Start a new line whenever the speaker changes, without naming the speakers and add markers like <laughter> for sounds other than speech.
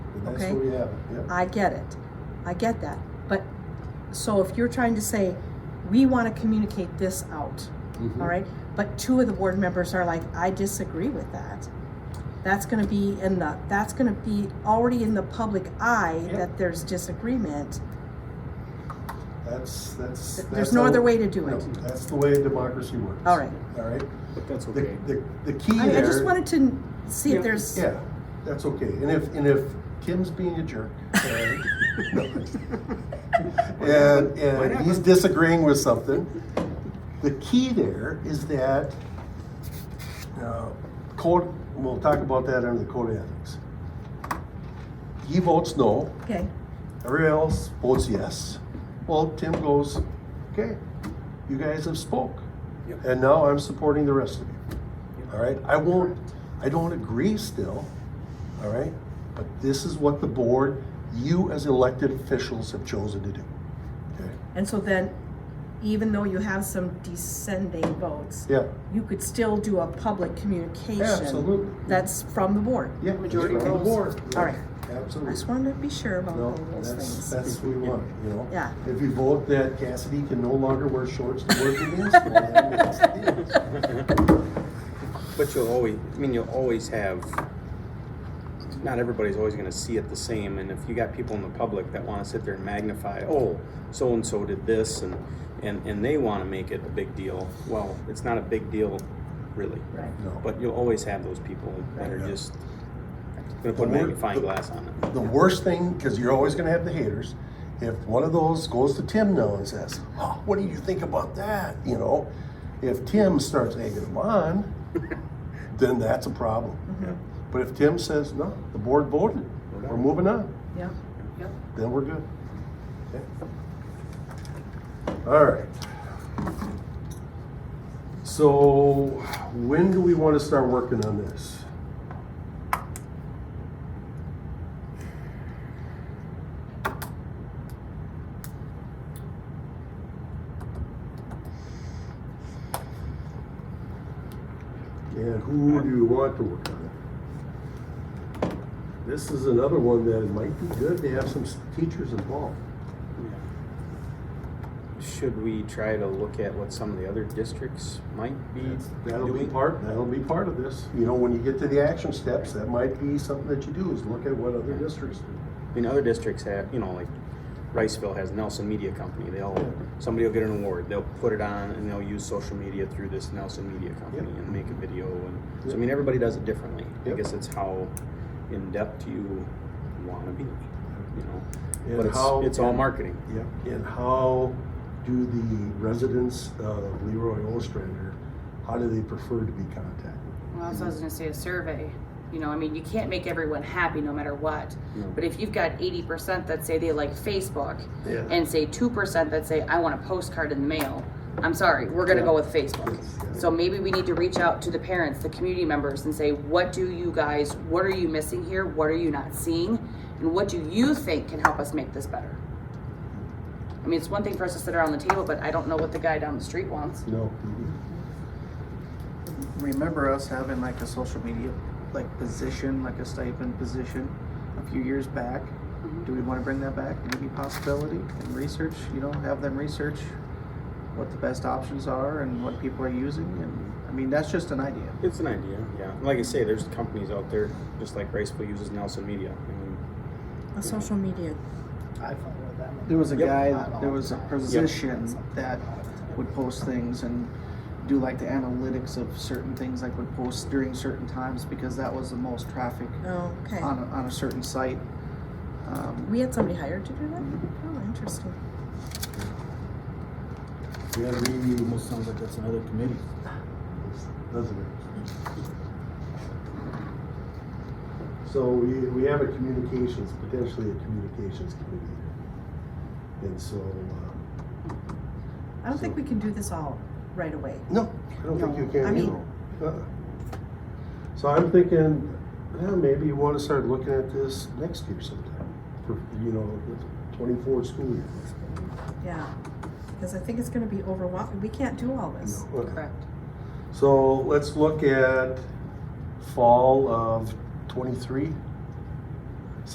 That's
Okay.
where we have it, yep.
I get it. I get that. But so if you're trying to say, we want to communicate this out,
Mm-hmm.
all right? But two of the board members are like, I disagree with that. That's going to be in the, that's going to be already in the public eye
Yep.
that there's disagreement.
That's, that's.
There's
that's
no
how-
other way to do
no,
it.
That's the way democracy works.
All right.
All right?
But that's
The,
okay.
the, the key
I,
there.
I just wanted to see if there's,
Yeah, that's okay. And if, and if Kim's being a jerk,
<laughs>
and, and, and he's disagreeing with something, the key there is that, uh, code, we'll talk about that under the code of ethics. He votes no,
okay,
everybody else votes yes. Well, Tim goes, okay, you guys have spoke.
Yep.
And now I'm supporting the rest of you. All right, I won't, I don't agree still, all right? But this is what the board, you as elected officials have chosen to do. Okay,
and so then, even though you have some descending votes,
yeah,
you could still do a public communication.
Absolutely.
That's from the board.
yeah.
Majority
it's from the
rules.
board.
All right. I
Absolutely.
just wanted to be sure about
No,
all those
that's,
things.
that's what we want, you know?
Yeah.
If you vote that Cassidy can no longer wear shorts to work
<laughs>
against, well, then that's the deal.
But you'll always, I mean, you'll always have, not everybody's always gonna see it the same, and if you got people in the public that wanna sit there and magnify, oh, so-and-so did this, and, and, and they wanna make it a big deal, well, it's not a big deal, really.
Right.
No.
But you'll always have those people that are
Yeah.
just gonna
The
put a
word-
magnifying
the-
glass on it.
The worst thing, because you're always going to have the haters, if one of those goes to Tim now and says, oh, What do you think about that? You know, if Tim starts egging them on, <laughs> then that's a problem. But if Tim says, No, the board voted,
We're
we're
done."
moving on,
Yeah.
then we're good. Okay. All right. So, when do we want to start working on this? And who do you want to work on it? This is another one that it might be good to have some s- teachers involved.
Should we try to look at what some of the other districts might be
That'll be
doing?
part, that'll be part of this. You know, when you get to the action steps, that might be something that you do, is look at what other districts do.
I mean, other districts have, you know, like Riceville has Nelson Media Company. They'll, somebody will get an award, they'll put it on and they'll use social media through this Nelson Media Company
Yep.
and make a video and, so I
Yep.
mean, everybody does it differently. I
Yep.
guess it's how in-depth you wanna be, you know?
And
But it's,
how-
it's all marketing.
Yeah. And how do the residents of Leroy Ostrander, how do they prefer to be contacted?
Well, that's what I was gonna say, a survey. You know, I mean, you can't make everyone happy no matter what.
No.
But if you've got eighty percent that say they like Facebook
Yeah.
and say two percent that say, I want a postcard in the mail, I'm sorry, we're gonna go with Facebook.
Yes.
So maybe we need to reach out to the parents, the community members and say, what do you guys, what are you missing here? What are you not seeing? And what do you think can help us make this better? I mean, it's one thing for us to sit around the table, but I don't know what the guy down the street wants.
No.
remember us having like a social media like position, like a stipend position a few years back. Do we want to bring that back? Maybe possibility and research, you know, have them research what the best options are and what people are using and I mean that's just an idea.
It's an idea, yeah. And Like I say, there's companies out there, just like Riceville uses Nelson Media. I mean,
A social media.
There was a
Yep.
guy there was a position that would post things and do like the analytics of certain things like would post during certain times because that was the most traffic
Oh, okay.
on a, on a certain site. Um,
We had somebody hired to do that?
Mm-hmm.
Oh, interesting.
Yeah, we,
Almost sounds like that's another committee.
doesn't it? So we, we have a communications, potentially a communications committee. here. And so, um,
I don't think we can do this all right away.
no, I don't think you
No, I
can
mean-
either. Uh-uh. So I'm thinking, well, maybe you wanna start looking at this next year sometime, for, you know, the twenty-four school year.
Yeah. Because I think it's gonna be overwhelming. We can't do all this.
Okay.
Correct.
So let's look at fall of twenty-three.